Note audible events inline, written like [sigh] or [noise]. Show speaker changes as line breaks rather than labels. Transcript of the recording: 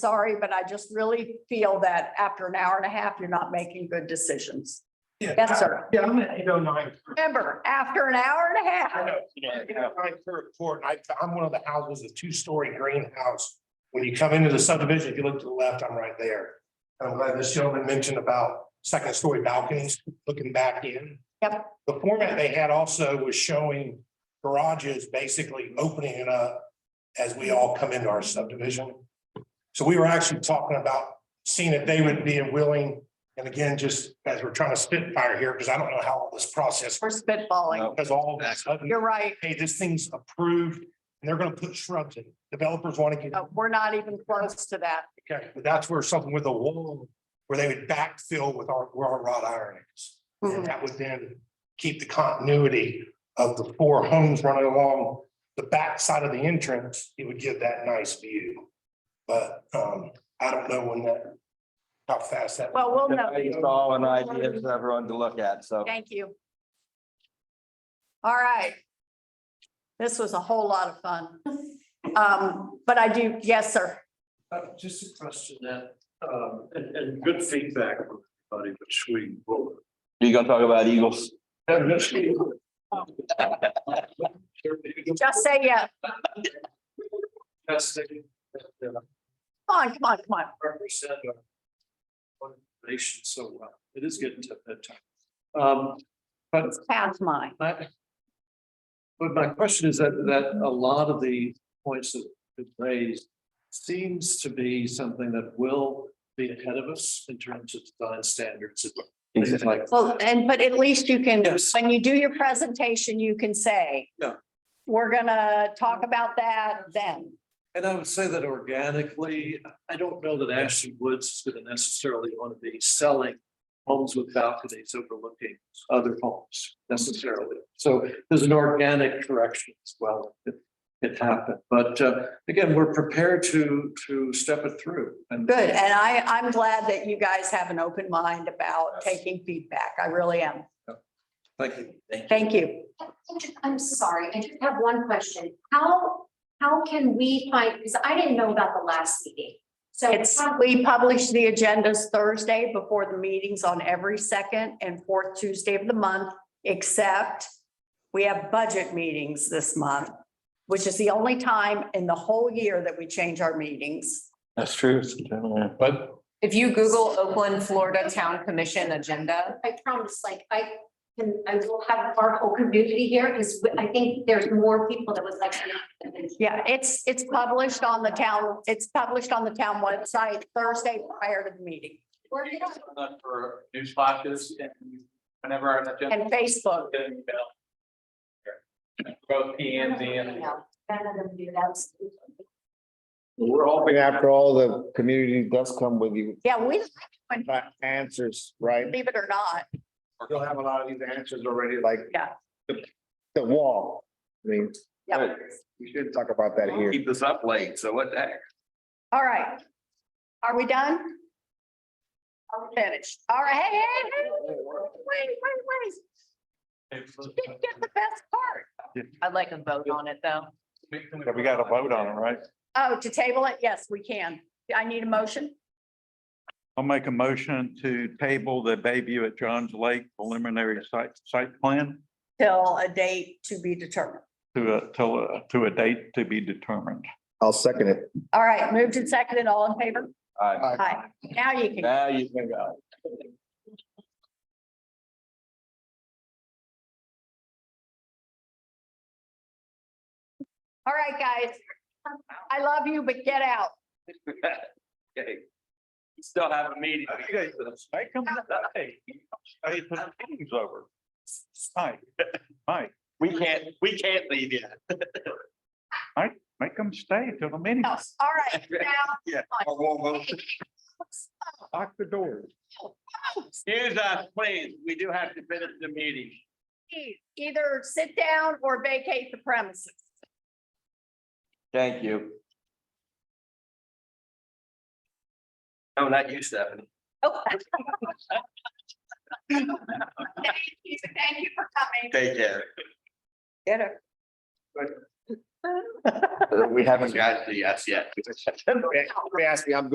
sorry, but I just really feel that after an hour and a half, you're not making good decisions.
Yeah.
Yes, sir.
Yeah, I'm an eight oh nine.
Remember, after an hour and a
I
half,
know. I'm court, I, I'm one of the houses, a two-story greenhouse. When you come into the subdivision, if you look to the left, I'm right there. I'm glad this gentleman mentioned about second-story balconies, looking back in.
Yep.
The format they had also was showing garages basically opening it up as we all come into our subdivision. So we were actually talking about seeing if they would be willing, and again, just as we're trying to spitfire here, because I don't know how all this process,
we're spitballing.
because all of a sudden
You're right.
hey, this thing's approved, and they're gonna put shrubs in. Developers wanna get,
Uh, We're not even close to that.
okay, but that's where something with a wall, where they would backfill with our, where our wrought iron is.
Mm-hmm.
And that would then keep the continuity of the four homes running along the back side of the entrance, it would give that nice view. But, um, I don't know when that, how fast that.
Well, we'll
It's
know.
all an idea for everyone to look at, so.
Thank you. All right. This was a whole lot of fun. Um, but I do, yes, sir.
Uh, just a question that, um, and, and good feedback from everybody, which we will.
You gonna talk about Eagles?
Just say yes.
That's the, that, uh,
Come on, come on, come on.
represent our nation so well. It is getting to that time. Um, but
It's past mine.
I. But my question is that, that a lot of the points that that raised seems to be something that will be ahead of us in terms of design standards and things like.
Well, and but at least you can,
Yes.
when you do your presentation, you can say.
Yeah.
We're gonna talk about that then.
And I would say that organically, I don't know that Ashley Woods is gonna necessarily wanna be selling homes with balconies overlooking other homes necessarily. So there's an organic direction as well. that It happened, but uh, again, we're prepared to, to step it through and.
Good, and I, I'm glad that you guys have an open mind about taking feedback. I really am.
Thank you.
Thank you.
I just- I'm sorry, I just have one question. How, how can we find, because I didn't know about the last meeting. So
It's,
how-
we publish the agendas Thursday before the meetings on every second and fourth Tuesday of the month, except we have budget meetings this month, which is the only time in the whole year that we change our meetings.
That's true. But.
If you Google Oakland, Florida Town Commission agenda,
I promise, like, I can, I will have our whole community here, because I think there's more people that would like. to-
Yeah, it's, it's published on the town, it's published on the town website Thursday prior to the meeting
Or you don't-
for news flashes and whenever our agenda.
and Facebook.
get an email. Both P and Z and.
No, None of them do that.
We're hoping after all the community does come with you,
Yeah, we,
answers, right?
believe it or not,
You'll have a lot of these answers already, like.
Yeah.
The, the wall, I mean.
Yeah.
We should talk about that here. Keep this up late, so what the heck?
all right. Are we done? Are we finished? All right, hey, hey, hey, wait, wait, wait, didn't get the best part.
I'd like a vote on it, though.
We got a vote on it, right?
Oh, to table it? Yes, we can. I need a motion.
I'll make a motion to table the Bayview at Johns Lake preliminary site, site plan
Till a date to be determined.
to a, till a, to a date to be determined.
I'll second it.
All right, moved and seconded, all in favor?
All right,
Hi, now you can.
now you can go.
All right, guys. I love you, but get out.
[laughs] Okay. Still have a meeting.
Make them stay. Hey, the meeting's over. Mike, Mike,
We can't, we can't leave yet.
make them stay till the meeting,
All [laughs] right, now,
lock the doors.
Excuse us, please. We do have to finish the meeting.
please, either sit down or vacate the premises.
Thank you. No, not you, Stephanie.
Oh. [laughs] Thank you, thank you for coming.
Take care.
Get it.
[laughs] [laughs] We haven't got to yes yet. We asked me, I'm